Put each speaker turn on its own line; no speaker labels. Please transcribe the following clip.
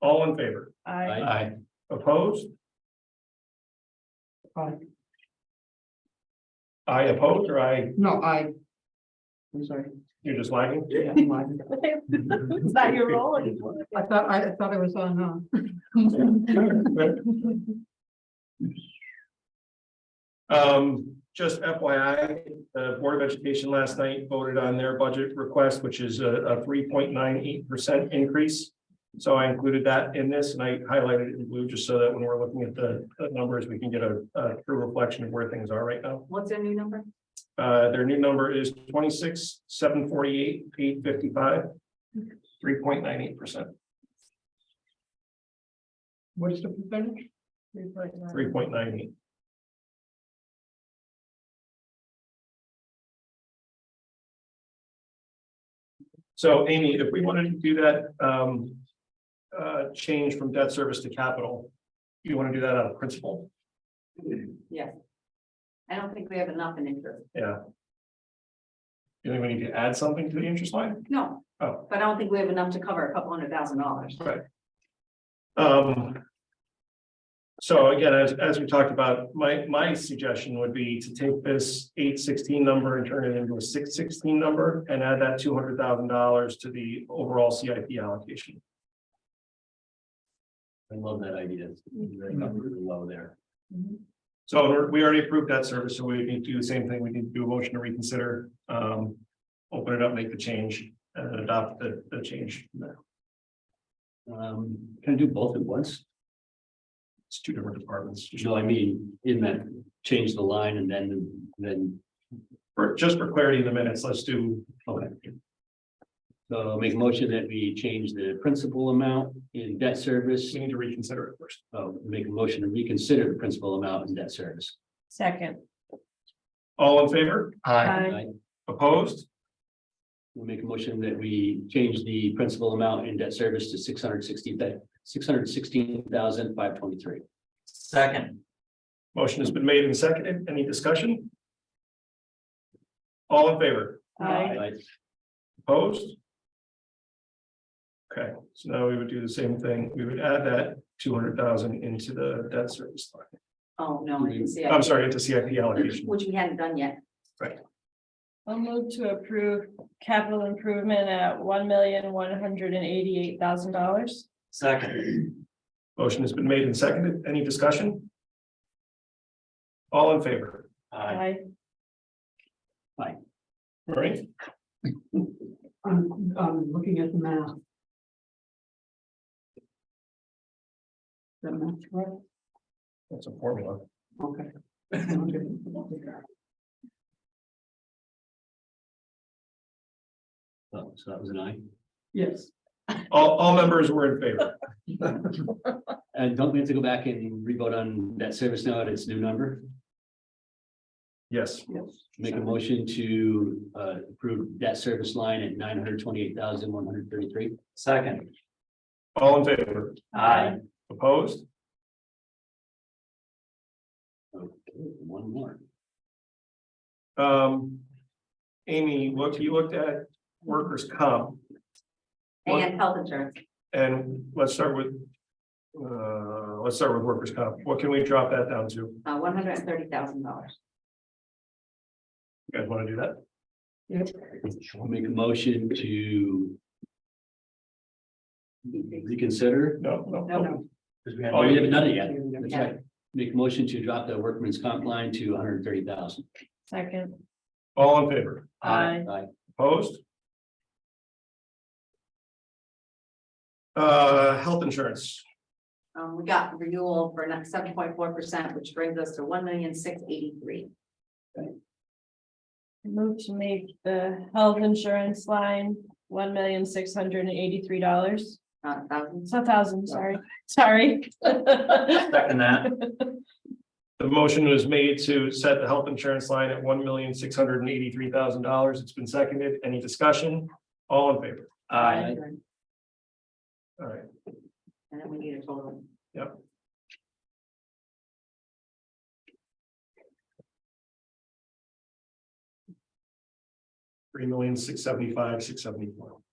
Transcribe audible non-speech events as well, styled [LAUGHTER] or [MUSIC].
All in favor?
I,
Aye.
Opposed?
Aye.
I opposed or I,
no, I. I'm sorry.
you're just lagging?
Yeah, I'm lying.
[LAUGHS] It's not your role anymore.
I thought, I I thought I was on, uh,
[LAUGHS] Um, just FYI, the Board of Education last night voted on their budget request, which is a, a three point nine eight percent increase. So I included that in this and I highlighted it in blue just so that when we're looking at the, the numbers, we can get a, a true reflection of where things are right now.
[LAUGHS] What's their new number?
Uh, their new number is twenty-six, seven forty-eight, eight fifty-five, three point nine eight percent,
what's the percentage?
three point nine eight. So Amy, if we wanted to do that, um, uh, change from debt service to capital, you want to do that out of principle?
Yes. I don't think we have enough in interest.
Yeah. You think we need to add something to the interest line?
No.
Oh.
But I don't think we have enough to cover a couple hundred thousand dollars.
Right. Um. So again, as, as we talked about, my, my suggestion would be to take this eight sixteen number and turn it into a six sixteen number and add that two hundred thousand dollars to the overall CIP allocation.
I love that idea. It's Very up really low there.
Mm-hmm.
So we're- we already approved that service, so we need to do the same thing. We need to do a motion to reconsider, um, open it up, make the change and adopt the, the change.
Um, can I do both at once?
It's two different departments, just
No, I mean, in that, change the line and then, then,
for, just for clarity in the minutes, let's do,
okay. So I'll make a motion that we change the principal amount in debt service,
we need to reconsider it first.
uh, make a motion to reconsider the principal amount in debt service.
Second.
All in favor?
Right?
Opposed?
We'll make a motion that we change the principal amount in debt service to six hundred sixty, six hundred sixteen thousand five twenty-three.
Second,
Motion has been made and seconded. Any discussion? All in favor?
Aye.
Opposed? Okay, so now we would do the same thing. We would add that two hundred thousand into the debt service line.
Oh, no, I
Mm-hmm.
didn't see
I'm
it,
sorry, into CIP allocation.
which we hadn't done yet.
I'll move to approve capital improvement at one million, one hundred and eighty-eight thousand dollars.
second,
Motion has been made and seconded. Any discussion? All in favor?
aye,
I,
All right,
I'm, I'm looking at the math. The math, right?
that's a formula.
Okay.
So Oh, so that was an aye.
Yes,
All, all members were in favor.
And don't we have to go back and revote on that service now at its new number?
Yes.
Make a motion to uh approve debt service line at nine hundred twenty-eight thousand one hundred thirty-three.
second,
All in favor?
aye,
Opposed?
Okay, one more.
Um. Amy, look, you looked at workers' comp
And health insurance,
and let's start with. Uh, let's start with workers' comp. What can we drop that down to? You
uh, one hundred and thirty thousand dollars.
guys want to do that?
I'll Make a motion to reconsider,
No, no,
No,
no.
no,
because we
oh,
had,
we haven't done it yet. That's right. Make a motion to drop the workman's comp line to one hundred thirty thousand.
second,
All in favor?
aye,
I,
Opposed? Uh, health insurance,
um, we got renewal for next seven point four percent, which brings us to one million, six eighty-three.
move to make the health insurance line one million, six hundred and eighty-three dollars.
Uh, thousand,
It's a thousand, sorry,
Oh.
sorry.
[LAUGHS] second that,
the motion was made to set the health insurance line at one million, six hundred and eighty-three thousand dollars. It's been seconded. Any discussion? All in favor?
aye,
All right,
and then we need a total.
three million, six seventy-five, six seventy-four.